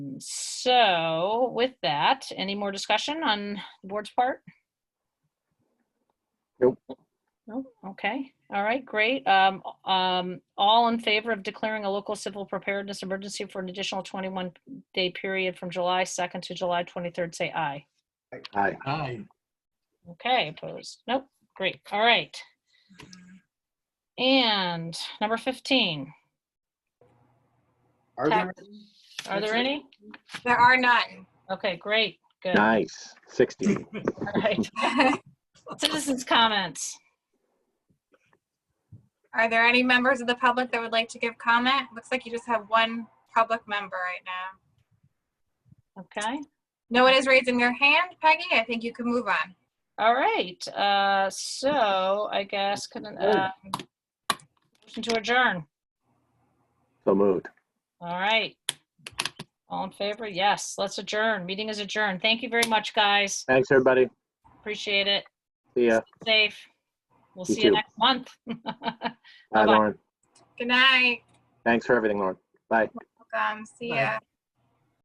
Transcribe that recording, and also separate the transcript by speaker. Speaker 1: so with that, any more discussion on the board's part?
Speaker 2: Nope.
Speaker 1: Nope, okay, all right, great. Um, um, all in favor of declaring a local civil preparedness emergency for an additional twenty-one day period from July second to July twenty-third, say aye.
Speaker 2: Aye.
Speaker 3: Aye.
Speaker 1: Okay, opposed, nope, great, all right. And number fifteen,
Speaker 4: Are there?
Speaker 1: are there any?
Speaker 5: There are none.
Speaker 1: Okay, great, good, all
Speaker 2: Nice. 60.
Speaker 1: right. Citizens' comments.
Speaker 5: Are there any members of the public that would like to give comment? Looks like you just have one public member right now.
Speaker 1: Okay,
Speaker 5: No one is raising their hand, Peggy. I think you can move on.
Speaker 1: all right, uh, so I guess, can, uh, motion to adjourn,
Speaker 2: So moved.
Speaker 1: all right. All in favor? Yes, let's adjourn. Meeting is adjourned. Thank you very much, guys.
Speaker 2: Thanks, everybody.
Speaker 1: Appreciate it.
Speaker 2: See ya.
Speaker 1: Safe. We'll
Speaker 2: You
Speaker 1: see you
Speaker 2: too.
Speaker 1: next month.
Speaker 2: Bye,
Speaker 1: Bye-bye.
Speaker 2: Lauren.
Speaker 5: Good night.
Speaker 2: Thanks for everything, Lauren. Bye.
Speaker 5: Welcome. See
Speaker 3: Bye.
Speaker 5: ya.